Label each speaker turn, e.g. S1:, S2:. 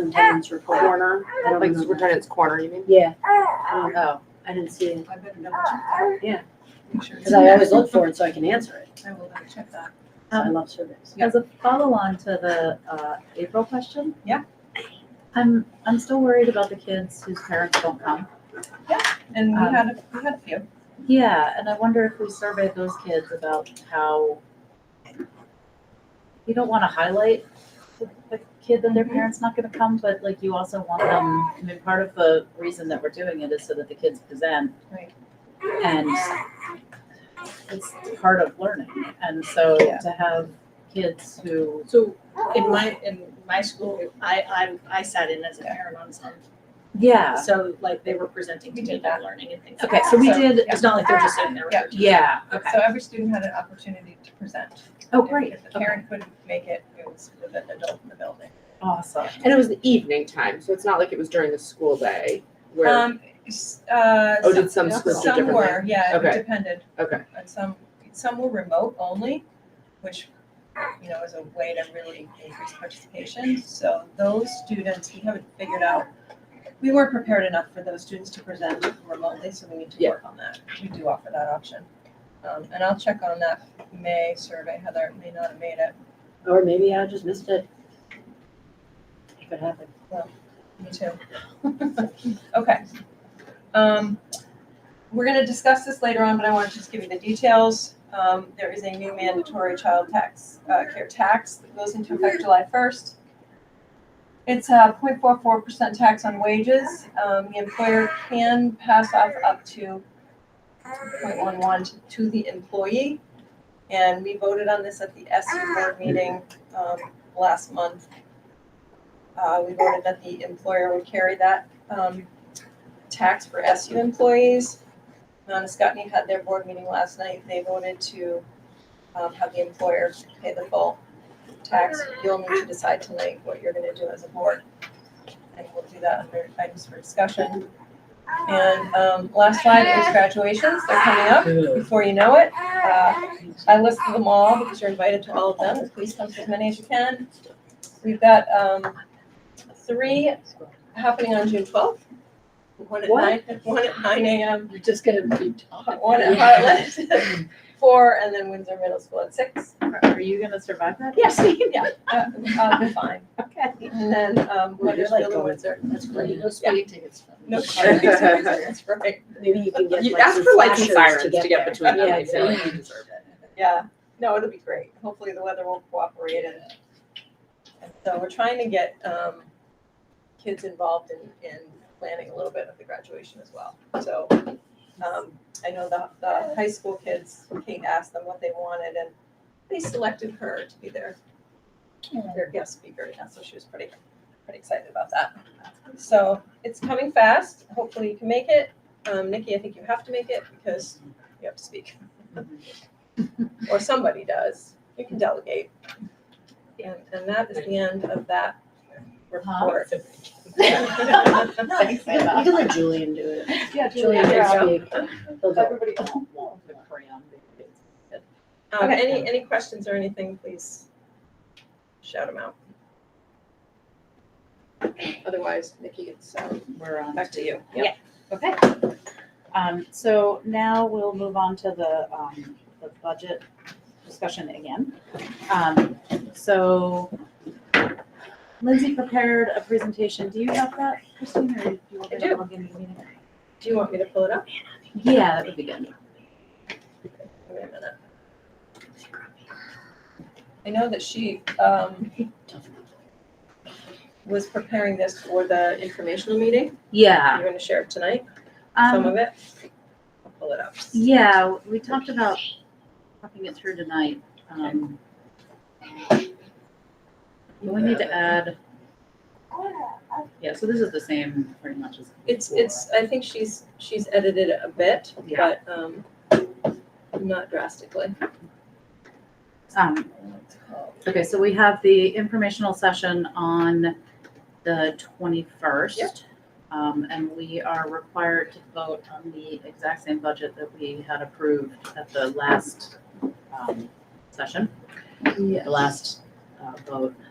S1: Superintendent's report.
S2: Corner,
S1: Ah, I don't
S2: like
S1: remember that.
S2: superintendent's corner, you mean?
S1: Yeah,
S3: Um,
S2: Oh,
S1: I didn't see it,
S4: I better double
S3: Uh,
S4: check.
S1: Yeah.
S4: Make sure.
S1: because I always look for it so I can answer it.
S4: I will double check that.
S1: So I love surveys.
S3: As a follow-on to the uh, April question.
S4: Yeah.
S3: I'm, I'm still worried about the kids whose parents don't come.
S4: And we
S3: Um,
S4: had, a- we had a few.
S3: Yeah, and I wonder if we surveyed those kids about how you don't want to highlight the, the kid that their
S4: Mhm.
S3: parents not going to come, but like you also want them, I mean, part of the reason that we're doing it is so that the kids present.
S4: Right.
S3: And it's part of learning. And so
S4: Yeah.
S3: to have kids who,
S5: So in my, in my school, I, I, I sat in as a parent on some,
S3: yeah.
S5: so like they were presenting
S4: We
S5: to
S4: did
S5: me
S4: that.
S5: about learning and things. like
S3: Okay,
S5: that.
S3: so we did,
S4: yeah. Ah.
S5: It's not like they're just sitting there with
S4: Yeah.
S5: their teacher.
S3: yeah, okay.
S4: So every student had an opportunity to present.
S3: Oh,
S4: If-
S3: great,
S4: If the
S3: okay,
S4: parent couldn't make it, it was with an adult in the building.
S3: awesome.
S2: And it was the evening time, so it's not like it was during the school day where,
S4: Um, s- uh,
S2: oh,
S4: some-
S2: did some schools do
S4: Some
S2: differently?
S4: were, yeah, it
S2: Okay.
S4: depended.
S2: Okay.
S4: And some, some were remote only, which, you know, is a way to really increase participation. So those students, we haven't figured out, we weren't prepared enough for those students to present remotely, so we need to
S2: Yeah.
S4: work on that. We do offer that option. Um, and I'll check on that May survey, Heather it may not have made it,
S1: Or maybe I just missed it. It could happen.
S4: me too. Okay. Um, We're gonna discuss this later on, but I want to just give you the details. Um, there is a new mandatory child tax, uh, care tax that goes into effect July first. It's a 0.44 percent tax on wages. Um, the employer can pass off up to 0.11 to, to the employee. And we voted on this at the SU board meeting, um, last month. Uh, we voted that the employer would carry that, um, tax for SU employees. Scotney had their board meeting last night, they voted to um, have the employer pay the full tax. You'll need to decide tonight what you're gonna do as a board. And we'll do that under items for discussion. And um, last slide is graduations, they're coming up before you know it. Uh, I listed them all because you're invited to all of them, please come to as many as you can. We've got um, three happening on June twelfth. One at
S1: What?
S4: nine, one at nine AM
S5: You're just gonna be
S4: one at Heartland, four, and then Windsor Middle School at six.
S3: Are- Are you gonna survive that?
S4: Yes, yeah, uh, uh, we're fine.
S3: Okay.
S4: And then, um,
S1: Well, you're
S4: Weathersfield
S1: like
S4: and
S1: going-
S4: Windsor.
S5: That's great. No speeding tickets.
S4: No car tickets, that's right.
S1: Maybe you can get
S2: You
S1: like
S2: ask
S1: some
S2: for lights and
S1: flashers
S2: sirens to get
S1: there.
S2: between them,
S1: Yeah,
S2: they feel like you deserve it.
S4: Yeah, no, it'll be great. Hopefully the weather will cooperate and, and so we're trying to get, um, kids involved in, in planning a little bit of the graduation as well. So, um, I know the, the high school kids, Kate asked them what they wanted and they selected her to be their, their guest speaker. And so she was pretty, pretty excited about that. So it's coming fast. Hopefully you can make it. Um, Nikki, I think you have to make it because you have to speak. Or somebody does. You can delegate. And, and that is the end of that report. Um,
S3: Thanks,
S1: You
S3: Eva.
S1: can let Julian do it.
S3: Yeah,
S1: Julian
S4: yeah.
S1: can speak. He'll do it.
S3: Everybody. oh, the crayon.
S4: Um, any, any questions or anything, please shout them out. Otherwise, Nikki, it's, um,
S3: We're on.
S4: back to you.
S3: Okay. Um, so now we'll move on to the, um, the budget discussion again. Um, so Lindsay prepared a presentation. Do you have that, Christine, or do you want me
S4: I do.
S3: to log in the meeting?
S4: Do you want me to pull it up?
S3: Yeah, that would be good.
S4: Wait a minute. I know that she, um, was preparing this for the informational meeting.
S3: Yeah.
S4: You're gonna share it tonight,
S3: Um,
S4: some of it. I'll pull it up.
S3: Yeah, we talked about talking it through tonight. Um, We need to add, yeah, so this is the same pretty much as.
S4: It's,
S3: before.
S4: it's, I think she's, she's edited it a bit,
S3: Yeah.
S4: but, um, not drastically.
S3: Um, Okay, so we have the informational session on the
S4: Yep.
S3: twenty-first. Um, and we are required to vote on the exact same budget that we had approved at the last, um, session. the last uh, vote.